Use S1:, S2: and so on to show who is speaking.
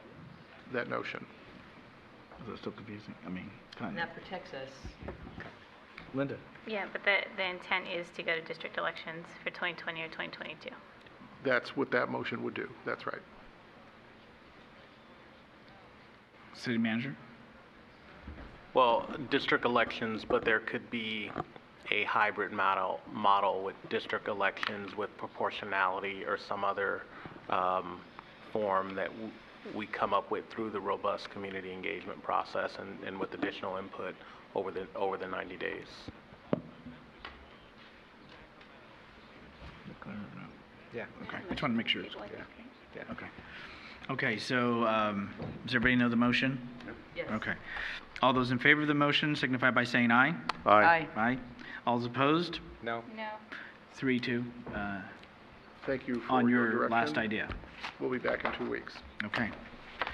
S1: that notion.
S2: Is that still confusing? I mean, kind
S3: And
S2: of.
S3: that protects us.
S2: Linda?
S4: Yeah, but the, the intent is to go to district elections for 2020 or 2022.
S1: That's what that motion would do. That's right.
S2: City manager?
S5: Well, district elections, but there could be a hybrid model, model with district elections with proportionality or some other um, form that w- we come up with through the robust community engagement process and, and with additional input over the, over the 90 days.
S2: Yeah. Okay, I just want to make sure. it's clear. Yeah, okay. Okay, so, um, does everybody know the motion?
S3: Yes.
S2: Okay. All those in favor of the motion signify by saying aye.
S3: Aye.
S2: Aye. All those opposed?
S5: No.
S4: No.
S2: Three, two, uh,
S1: Thank you for
S2: on
S1: your
S2: your
S1: direction.
S2: last idea.
S1: We'll be back in two weeks.
S2: Okay.